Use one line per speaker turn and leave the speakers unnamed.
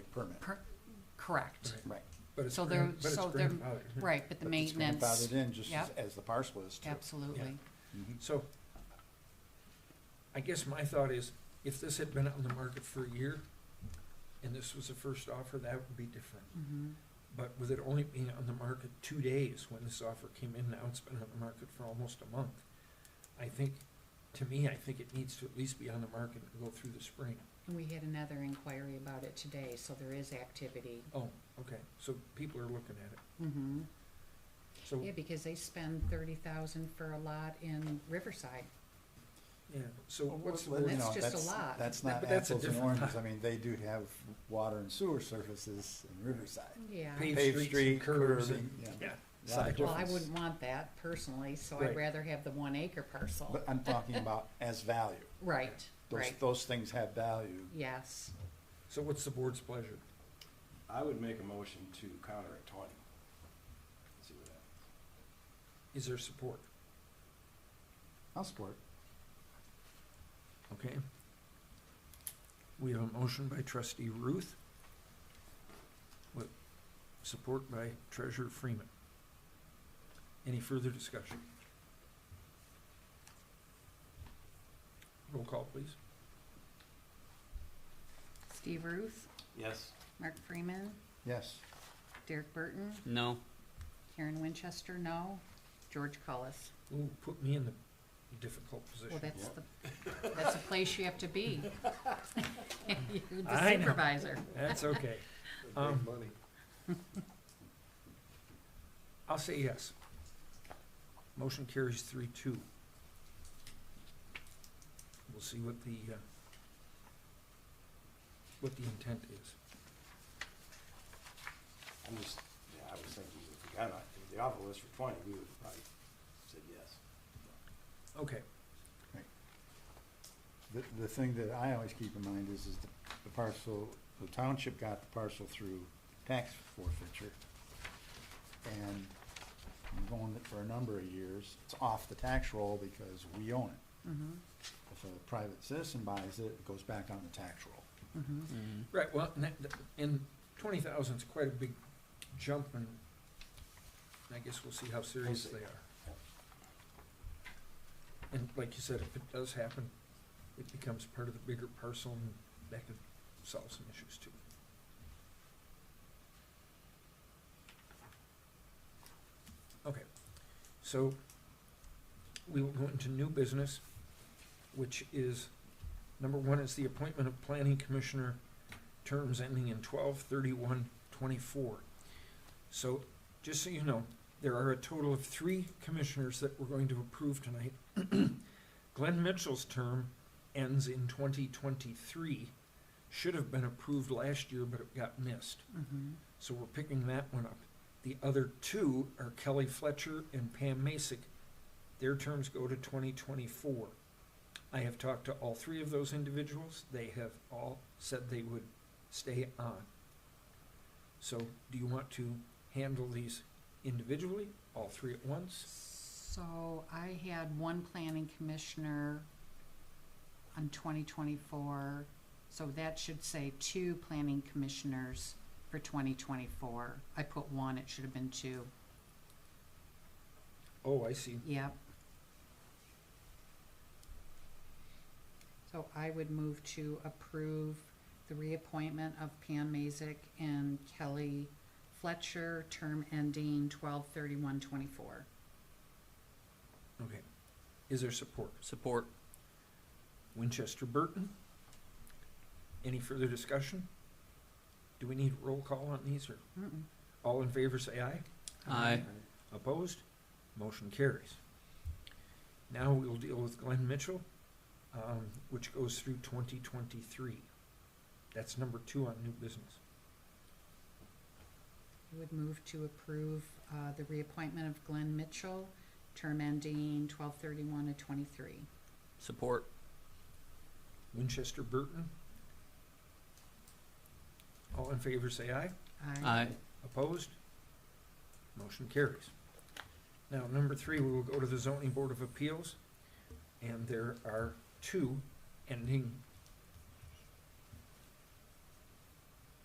permit.
per, correct.
Right.
But it's
So they're,
grand- but it's
so they're,
grandfathered.
right, but the
But it's
maintenance.
Grandfathered in just as-
Yep,
as the parcel is too. Mm-hmm.
absolutely.
So I guess my thought is, if this had been on the market for a year and this was the first offer, that would be different.
Mhm.
But with it only being on the market two days when this offer came in, now it's been on the market for almost a month. I think, to me, I think it needs to at least be on the market and go through the spring.
And we had another inquiry about it today, so there is activity.
Oh, okay, so people are looking at it.
Mhm.
So,
Yeah, because they spend thirty thousand for a lot in Riverside.
yeah, so
Well,
what's the
well, you
word?
That's
know,
just a lot.
That's
That-
not
but that's a
apples and
different-
oranges. I mean, they do have water and sewer surfaces in Riverside.
Yeah.
Paved
Paved
streets
street,
and curves
curving,
and-
yeah.
Yeah,
Lot of
Side-
Well, I
difference.
wouldn't want that personally, so
Right.
I'd rather have the one acre
Oh.
parcel.
But I'm talking about as value.
Right,
Those,
right,
those things have value.
yes.
so what's the board's pleasure?
I would make a motion to counter at twenty. Let's See what happens.
Is there support?
I'll support.
Okay. We have a motion by trustee Ruth with support by treasurer Freeman. Any further discussion? Roll call, please.
Steve Ruth,
Yes.
Mark Freeman,
Yes.
Derek Burton,
No.
Karen Winchester, no. George Cullis.
Ooh, put me in the difficult position.
Well, that's
Yep.
the, that's the place you have to be. You're the
I know.
supervisor.
That's okay. Um,
money.
I'll say yes. Motion carries three two. We'll see what the, uh, what the intent is.
I'm just, yeah, I was thinking if we counter, if the offer was for twenty, we would probably said yes.
Okay,
The, the thing that I always keep in mind is, is the- the parcel, the township got the parcel through tax forfeiture. And I'm going it for a number of years, it's off the tax roll because we own it.
Mhm,
If a private citizen buys it, it goes back on the tax roll.
mhm.
right, well, and that, and twenty thousand's quite a big jump, and I guess we'll see how serious they are. And like you said, if it does happen, it becomes part of the bigger parcel, and that could solve some issues too. Okay, so we will go into new business, which is, number one is the appointment of planning commissioner terms ending in twelve thirty-one twenty-four. So, just so you know, there are a total of three commissioners that we're going to approve tonight. Glenn Mitchell's term ends in twenty twenty-three, should have been approved last year, but it got missed.
Mhm.
So we're picking that one up. The other two are Kelly Fletcher and Pam Masick. Their terms go to twenty twenty-four. I have talked to all three of those individuals. They have all said they would stay on. So do you want to handle these individually, all three at once?
So I had one planning commissioner on twenty twenty-four, so that should say two planning commissioners for twenty twenty-four. I put one, it should have been two.
Oh, I see.
Yep.
So I would move to approve the reappointment of Pam Mazick and Kelly Fletcher, term ending twelve thirty-one twenty-four.
Okay. Is there support?
Support.
Winchester Burton? Any further discussion? Do we need roll call on these or
Mm-mm.
all in favor say aye?
Aye.
Opposed? Motion carries. Now we'll deal with Glenn Mitchell, um, which goes through twenty twenty-three. That's number two on new business.
I would move to approve uh, the reappointment of Glenn Mitchell, term ending twelve thirty-one to twenty-three.
Support.
Winchester Burton. All in favor say aye.
Aye.
Opposed? Motion carries. Now, number three, we will go to the zoning board of appeals, and there are two ending